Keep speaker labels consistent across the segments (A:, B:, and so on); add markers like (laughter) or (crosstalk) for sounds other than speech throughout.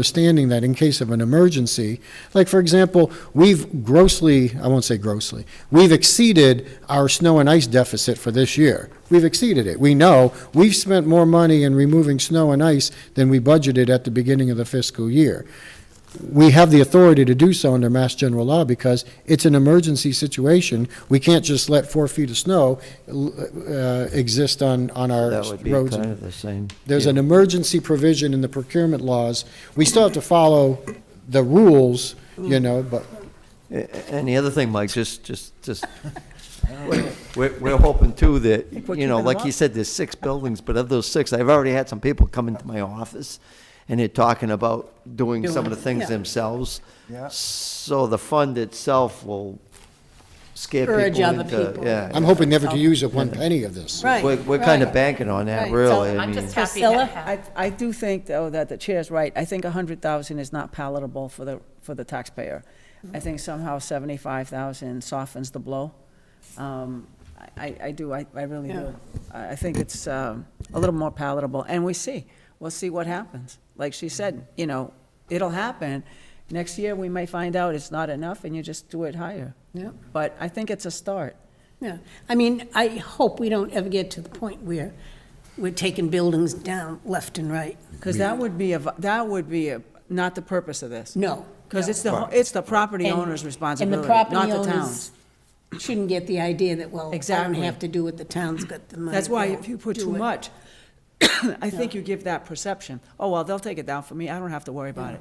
A: understanding that in case of an emergency, like, for example, we've grossly, I won't say grossly, we've exceeded our snow and ice deficit for this year. We've exceeded it. We know, we've spent more money in removing snow and ice than we budgeted at the beginning of the fiscal year. We have the authority to do so under Mass General Law because it's an emergency situation. We can't just let four feet of snow uh, exist on, on our
B: That
A: roads.
B: would be kind of the same.
A: There's
B: deal.
A: an emergency provision in the procurement laws. We still have to follow the rules, you know, but
B: A- a- And the other thing, Mike, just, just, just, we're, we're hoping too that,
C: we're
B: you know,
C: keeping
B: like
C: them
B: you
C: up.
B: said, there's six buildings, but of those six, I've already had some people come into my office and they're talking about doing some of the
C: Doing it,
B: things
C: yeah.
B: themselves.
D: Yeah.
B: So the fund itself will scare people
C: Urge
B: into.
C: other people.
B: Yeah.
A: I'm hoping never to use up one penny of this.
C: Right.
B: We're, we're kind of
C: right.
B: banking on that,
C: Right.
B: really.
C: So
B: I
E: I'm
B: mean,
E: just happy to
C: Priscilla?
E: have.
F: I, I do think, though, that the chair's right. I think 100,000 is not palatable for the, for the taxpayer. I think somehow 75,000 softens the blow. Um, I, I do, I, I really
C: Yeah.
F: do. I, I think it's um, a little more palatable, and we see, we'll see what happens. Like she said, you know, it'll happen. Next year, we may find out it's not enough, and you just do it higher.
C: Yeah.
F: But I think it's a start.
E: Yeah, I mean, I hope we don't ever get to the point where we're taking buildings down left and right.
F: Because that would be, a vi- that would be a- not the purpose of this.
E: No.
F: Because it's the, ho- it's the property
E: And-
F: owner's responsibility,
E: And
F: not
E: the
F: the
E: property
F: town's.
E: owners shouldn't get the idea that, well, I don't
F: Exactly.
E: have to do what the town's got the money.
F: That's why
E: for,
F: if you put
E: do
F: too
E: it.
F: much, (coughs) I think you give that perception, oh, well, they'll take it down for me, I don't have to worry about it.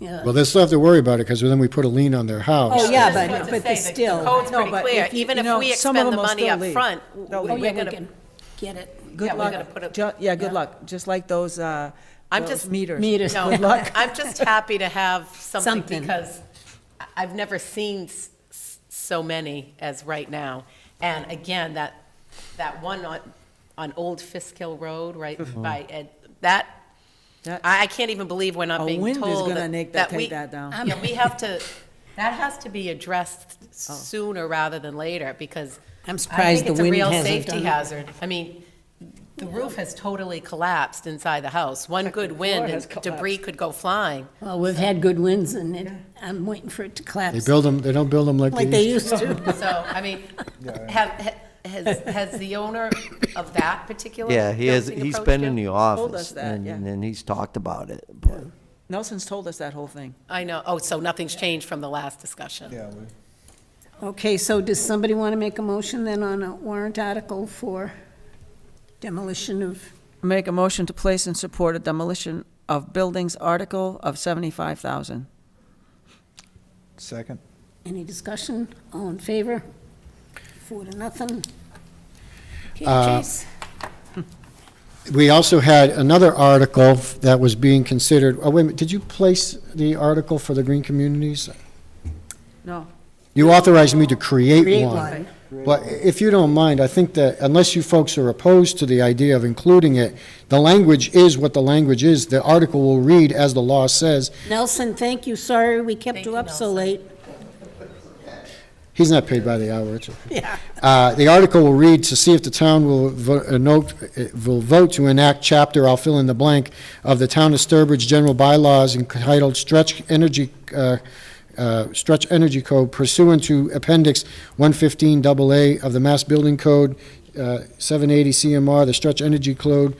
E: Yeah.
A: Well, they still have to worry about it because then we put a lien on their house.
F: Oh,
E: Oh, yeah,
F: I was
E: but,
F: about
E: but
F: to say
E: they're
F: that
E: still.
F: the
E: Oh,
F: codes
E: yeah,
F: No,
E: but
F: pretty but clear. if you-
E: Even
F: Even if
E: if
F: you know, we
E: we
F: some expend
E: expend the
F: of the them will money
E: money
F: still
E: up
F: up leave.
E: front,
F: front, No, we-
E: we're
F: Oh, we're
E: gonna
F: gonna
E: get it.
F: Good
E: we're
F: luck.
E: gonna put a-
F: Ju- Yeah, good
E: yeah.
F: luck, just like those, uh,
E: I'm
F: those
E: just-
F: meters.
E: Meters. No.
F: Good luck.
G: I'm just happy to have something
E: Something.
G: because I- I've never seen s- s- so many as right now. And again, that, that one on, on Old Fisk Hill Road, right
B: Mm-hmm.
G: by Ed, that,
F: That-
G: I I can't even believe we're
F: A
G: not being
F: wind is
G: told.
F: gonna
G: that-
F: make that- take
G: we-
F: that down.
G: Yeah, we have to, that has to be addressed
F: Oh.
G: sooner rather than later because
E: I'm
G: I
E: surprised
G: think
E: the
G: it's a
E: wind
G: real
E: hasn't
G: safety
E: done it.
G: hazard. I mean, the roof has totally collapsed inside the house. One good wind
F: has
G: and debris could go flying.
E: Well, we've had good winds and it- I'm waiting for it to
A: They
E: collapse
A: build them, they don't build them like
E: like they
A: they used.
E: used
G: (laughs)
E: to.
G: So, I mean, have, ha- has, has the owner of that particular?
B: yeah, he has,
G: building
B: he's
G: approached
B: been
G: you?
B: in the
F: Told
B: office
F: us that,
B: and,
F: yeah.
B: and he's talked about it, but.
F: Nelson's told us that whole thing.
G: I know, oh, so nothing's changed from the last discussion.
D: Yeah, we-
E: Okay, so does somebody want to make a motion then on a warrant article for demolition of?
F: Make a motion to place and support a demolition of buildings article of seventy-five thousand.
D: Second?
E: Any discussion? All in favor? Four to nothing. Okay,
A: Uh,
E: Chase?
A: We also had another article that was being considered, oh, wait a minute, did you place the article for the green communities?
F: No,
A: You authorized me to create
E: Create
A: one.
E: one.
A: But if you don't mind, I think that unless you folks are opposed to the idea of including it, the language is what the language is. The article will read as the law says.
E: Nelson, thank you, sorry we kept you up so late.
A: He's not paid by the hour, it's okay. Uh, The article will read, "To see if the town will vo- uh, note- uh, will vote to enact chapter," I'll fill in the blank, "of the Town of Sturbridge General Bylaws entitled Stretch Energy, uh, uh, Stretch Energy Code pursuant to Appendix 115 AA of the Mass Building Code, uh, 780 CMR, the Stretch Energy Code,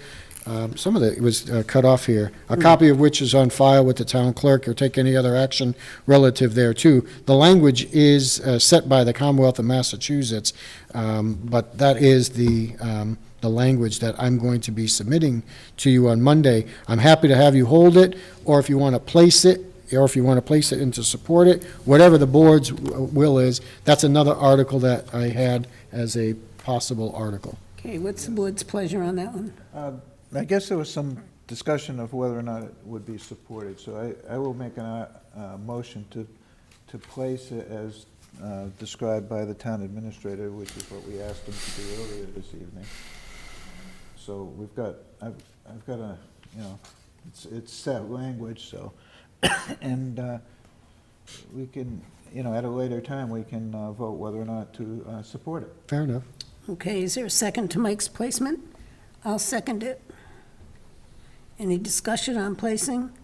A: um, some of it was uh, cut off here, a copy of which is on file with the town clerk or take any other action relative thereto. The language is uh, set by the Commonwealth of Massachusetts, um, but that is the, um, the language that I'm going to be submitting to you on Monday. I'm happy to have you hold it, or if you want to place it, or if you want to place it and to support it, whatever the board's w- uh, will is, that's another article that I had as a possible article.
E: Okay, what's the board's pleasure on that one?
D: Uh, I guess there was some discussion of whether or not it would be supported, so I, I will make an, uh, uh, motion to, to place it as uh, described by the town administrator, which is what we asked him to do earlier this evening. So we've got, I've, I've got a, you know, it's, it's set language, so, (coughs) and uh, we can, you know, at a later time, we can uh, vote whether or not to uh, support it.
A: Fair enough.
E: Okay, is there a second to Mike's placement? I'll second it. Any discussion on placing?